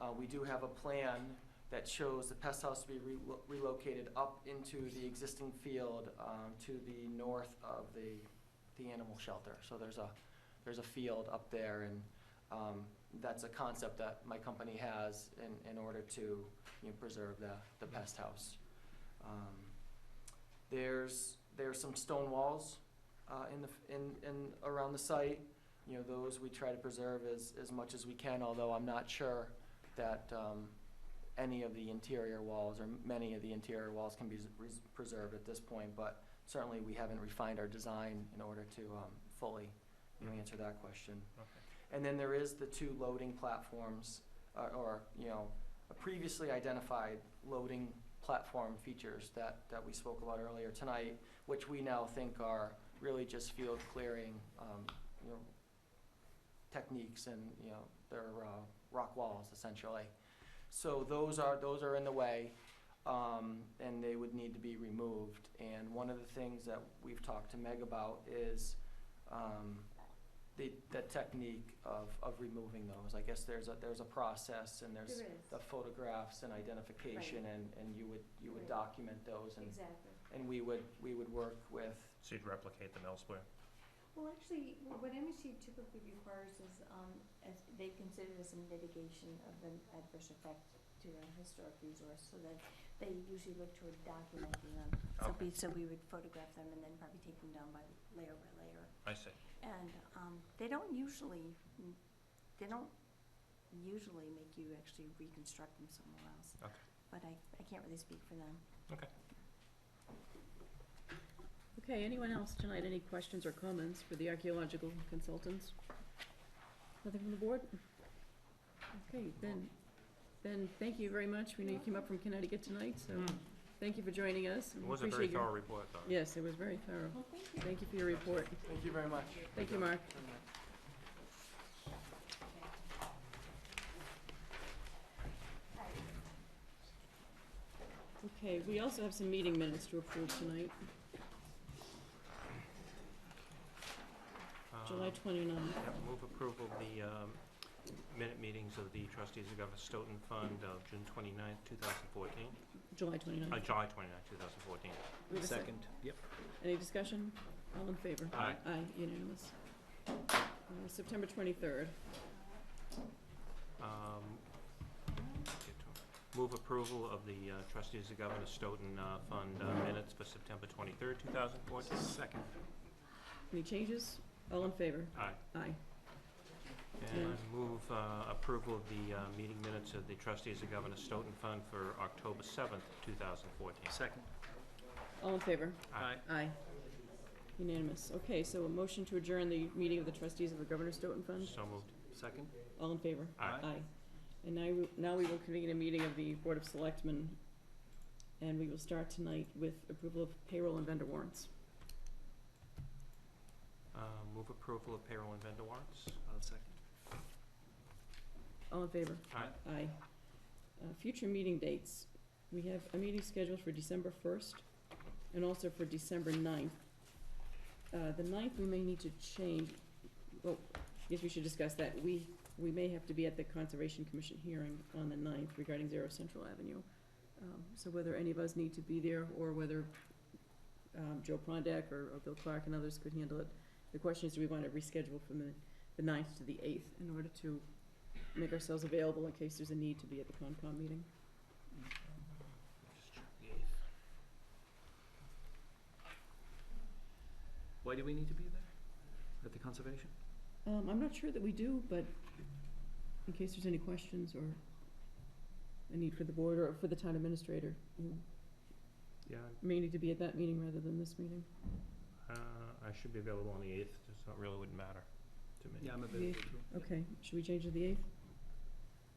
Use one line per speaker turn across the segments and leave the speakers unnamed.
Uh, we do have a plan that shows the pest house to be relo- relocated up into the existing field, um, to the north of the, the animal shelter. So there's a, there's a field up there and, um, that's a concept that my company has in, in order to, you know, preserve the, the pest house. Um, There's, there's some stone walls, uh, in the, f- in, in, around the site. You know, those we try to preserve as, as much as we can, although I'm not sure that, um, any of the interior walls or many of the interior walls can be s- res- preserved at this point, but certainly we haven't refined our design in order to, um, fully, you know, answer that question. And then there is the two loading platforms, uh, or, you know, previously identified loading platform features that, that we spoke about earlier tonight, which we now think are really just field clearing, um, you know, techniques and, you know, they're, uh, rock walls essentially. So those are, those are in the way, um, and they would need to be removed. And one of the things that we've talked to Meg about is, um, the, the technique of, of removing those. I guess there's a, there's a process and there's
There is,
the photographs and identification and, and you would, you would
Right.
document those and,
exactly.
and we would, we would work with,
So you'd replicate them elsewhere?
Well, actually, wh- what MSU typically requires is, um, as, they consider this a mitigation of the adverse effect to the historic resource, so that they usually look toward documenting them. So
Okay.
we, so we would photograph them and then probably take them down by layer by layer.
I see.
And, um, they don't usually, mm, they don't usually make you actually reconstruct them somewhere else.
Okay.
But I, I can't really speak for them.
Okay, anyone else tonight, any questions or comments for the archaeological consultants? Nothing from the board? Okay, Ben, Ben, thank you very much, we know you came up from Connecticut tonight, so thank you for joining us.
Hmm. It
We
was a very
Mm-hmm. appreciate your-
thorough report, though.
Yes, it was very thorough,
Well, thank you.
thank you for your report,
thank you very much.
thank you, Mark. Okay, we also have some meeting minutes to approve tonight,
Um,
July twenty-ninth.
yeah, Move approval of the um, minute meetings of the trustees of Governor Stoughton Fund of June 29, 2014,
July twenty-ninth.
uh, July 29, 2014.
Second, yep. Any discussion? All in favor?
Aye.
Aye, unanimous. Uh, September twenty-third.
Um, get to- Move approval of the uh, trustees of Governor Stoughton uh, Fund uh, minutes for September 23, 2014. Second.
Any changes? All in favor?
Aye.
Aye.
And move uh, approval of the uh, meeting minutes of the trustees of Governor Stoughton Fund for October 7, 2014. Second.
All in favor?
Aye.
Aye. Unanimous. Okay, so a motion to adjourn the meeting of the trustees of the Governor Stoughton Fund.
So moved.
Second?
All in favor?
Aye.
Aye. And now, we- now we will convene a meeting of the Board of Selectmen, and we will start tonight with approval of payroll and vendor warrants.
Uh, Move approval of payroll and vendor warrants.
I'll second.
All in favor?
Aye.
Aye. Uh, Future meeting dates, we have a meeting scheduled for December first and also for December 9th. Uh, the ninth, we may need to change, well, yes, we should discuss that. We, we may have to be at the Conservation Commission hearing on the ninth regarding Zero Central Avenue. Um, so whether any of us need to be there or whether, um, Joe Prondak or, or Bill Clark and others could handle it. The question is, do we wanna reschedule from the, the ninth to the eighth in order to make ourselves available in case there's a need to be at the Concom meeting.
Just check the eighth.
Why do we need to be there? At the conservation?
Um, I'm not sure that we do, but in case there's any questions or a need for the board or for the town administrator, you
Yeah,
may need to be at that meeting rather than this meeting.
uh, I should be available on the 8th, just not really wouldn't matter to me.
Yeah, I'm
available,
available too.
Okay, should we change to the eighth?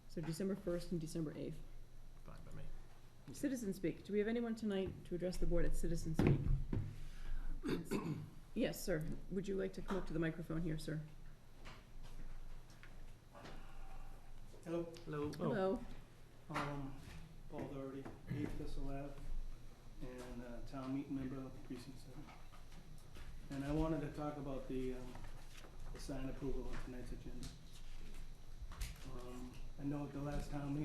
So December first and December eighth.
Fine by me.
Citizen Speak, do we have anyone tonight to address the board at Citizen Speak? Yes, sir. Would you like to come up to the microphone here, sir?
Hello,
Hello?
Oh.
Hello?
um, Paul Doherty, eighth Thistle Ave, and, uh, town meeting member of precinct seven. And I wanted to talk about the, um, the sign approval on tonight's agenda. Um, I know at the last town meeting,